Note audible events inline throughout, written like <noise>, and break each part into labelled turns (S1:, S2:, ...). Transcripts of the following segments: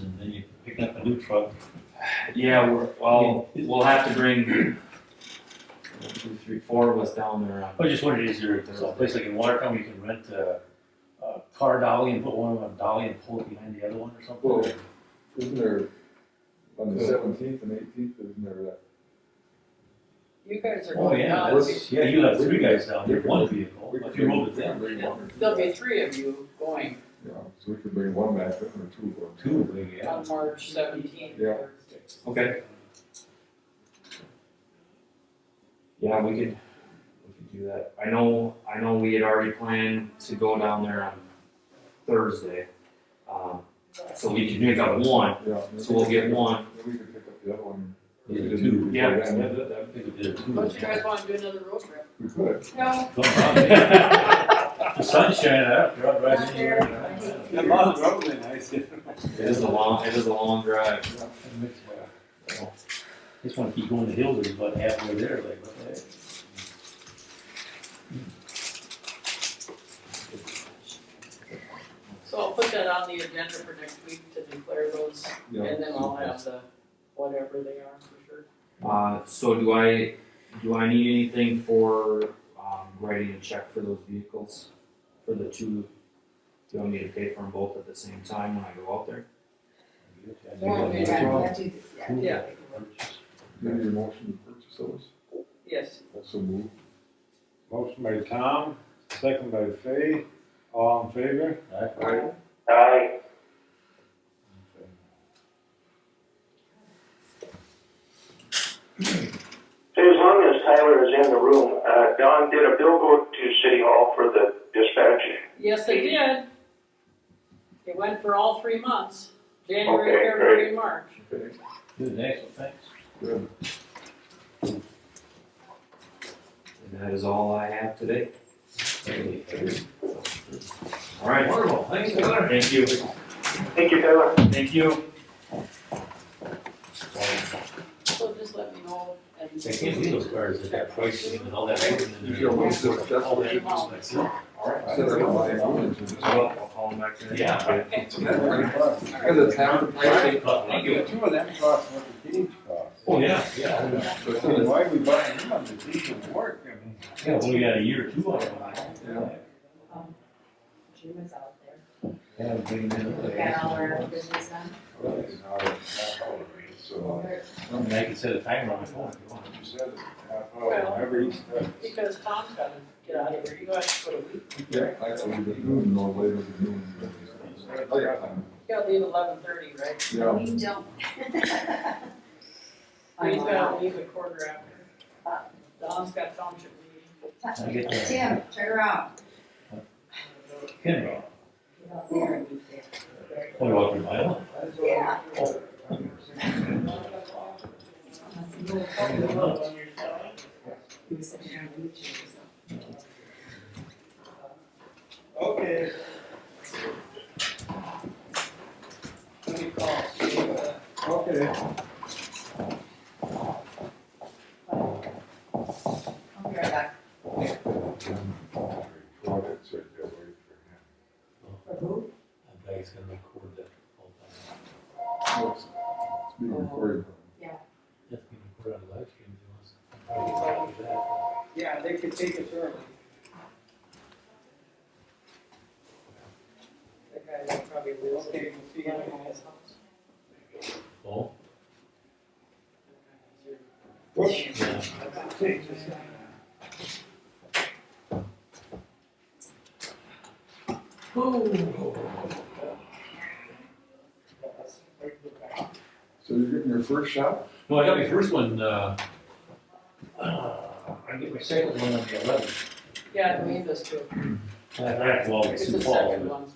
S1: and then you're picking up a new truck.
S2: Yeah, we're, well, we'll have to bring one, two, three, four of us down there. uh, on-
S1: I was just wondering, is there a place like in Watertown where you can rent a, a car dolly and put one on a dolly and pull it behind the other one or something?
S3: Well, isn't there, on the
S2: Yeah.
S3: seventeenth and eighteenth, isn't there that?
S4: You guys are
S1: Oh,
S4: going
S1: yeah,
S4: nuts.
S1: that's, yeah, you have three guys down there, one vehicle,
S3: We could
S1: if you roll
S3: bring-
S1: with them,
S3: bring one or two
S4: There'll be
S3: back.
S4: three of you going
S3: Yeah, so we could bring one back, or two of them.
S1: two, maybe, yeah.
S4: on March seventeenth.
S3: Yeah.
S2: Okay. Yeah, we could, we could do that. I know, I know we had already planned to go down there on Thursday. Um, so we can pick up one,
S3: Yeah.
S2: so we'll get one.
S3: Then we could pick up the other one.
S1: Yeah, two.
S2: Yeah.
S3: Yeah, and then-
S1: I think it'd be a two.
S4: Don't you guys wanna do another road trip?
S3: We could.
S4: No.
S1: Come on, man. The sun's shining up, you're out driving anywhere.
S5: That model rubber band, I see.
S2: It is a long, it is a long drive.
S1: Just wanna keep going to Hills, it's about halfway there, like, what the heck?
S4: So I'll put that on the agenda for next week to declare those,
S3: Yeah.
S4: and then I'll have the, whatever they are for sure.
S2: Uh, so do I, do I need anything for, um, writing a check for those vehicles? For the two, do you want me to pay for them both at the same time when I go out there?
S6: Yeah,
S4: Yeah.
S6: yeah, yeah, do this, yeah.
S4: Yeah.
S3: Maybe your motion to purchase those,
S4: Yes,
S3: also move.
S5: Motion by Tom, second by Fay, all in favor?
S4: Aye.
S5: Aye.
S7: Hey, as long as Tyler is in the room, uh, Don, did a bill go to City Hall for the dispatch?
S4: yes, they did. It went for all three months, January,
S7: Okay,
S4: February, and March.
S3: Okay,
S1: Good, excellent, thanks.
S3: good.
S2: And that is all I have today. All right,
S1: Wonderful, thanks, Tyler.
S2: thank you.
S7: Thank you, Tyler.
S2: Thank you.
S4: So just let me know and.
S1: I can't believe those cars at that price and all that.
S3: You should always do it, that's
S1: All
S3: what
S1: that
S3: you-
S1: expensive.
S2: All right.
S3: Set up my phone to just-
S2: Well, I'll call him back. today.
S1: Yeah.
S4: Okay.
S3: That's pretty fun. Because it's half the price.
S1: Thank you.
S5: Two of them cost what the cage cost.
S1: Oh, yeah, yeah,
S5: So I said, why are we buying them on the cage and work? I mean,
S1: yeah, well, we got a year or two on it.
S3: Yeah.
S6: Um, Jim was out there,
S1: Yeah, we bring them in.
S6: we got all our business done.
S5: it's not a half hour, so. uh,
S6: We're-
S1: And I can set a timer on my phone if you want.
S5: You said it's half hour, whenever you start.
S4: Because Tom's gotta get out of here, you guys put a week,
S3: Yeah, I told you, noon, no later than noon. Oh, yeah.
S4: you gotta leave eleven thirty, right?
S3: Yeah,
S6: We don't.
S4: He's
S6: I'm
S4: gotta
S6: <laughs> out.
S4: leave at quarter after. Don's got township meeting.
S1: I get that.
S6: Tim, turn around.
S1: Ken,
S6: There.
S1: what about your mile?
S6: Yeah. He was sitting there on the beach or something.
S5: Okay.
S4: What do you call it? You, uh,
S5: Okay.
S6: I'll be right back.
S3: Products right there, wait for
S6: For who?
S1: I think it's gonna record that whole time.
S3: him. It's it's being recorded.
S1: That's gonna record on live stream if he wants.
S4: Yeah, they could take it early. That guy probably will, okay, we'll see him in his house.
S1: Oh, yeah.
S3: So you're getting your first shot?
S1: Well, I got my first one, uh, uh, I get my second one on the eleventh.
S4: Yeah, we need this too.
S1: I have to go always
S4: It's
S1: Sioux
S4: the
S1: Falls,
S4: second
S1: but
S4: one.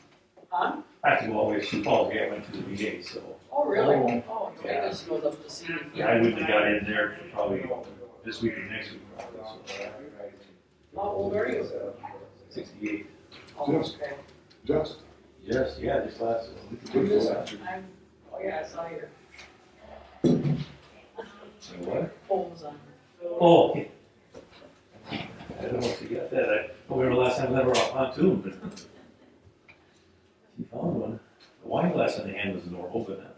S4: Huh?
S1: I have to go always Sioux Falls, yeah, I went to the VA, so.
S4: Oh, really?
S1: Oh,
S4: Oh,
S1: yeah.
S4: I just goes up to see. you.
S1: I wouldn't have got in there for probably this week or next week, probably, so, uh,
S4: How old are you?
S1: sixty-eight.
S4: Oh, okay.
S3: Just.
S1: Yes, yeah, this last.
S3: Good
S4: Yes.
S3: shot.
S4: I'm, oh yeah, I saw your
S1: What?
S4: poles on.
S1: Oh. <laughs> I don't know if you got that, I don't remember last time I ever on <laughs> pontoon, but. She found one, the wine glass on the hand was normal, but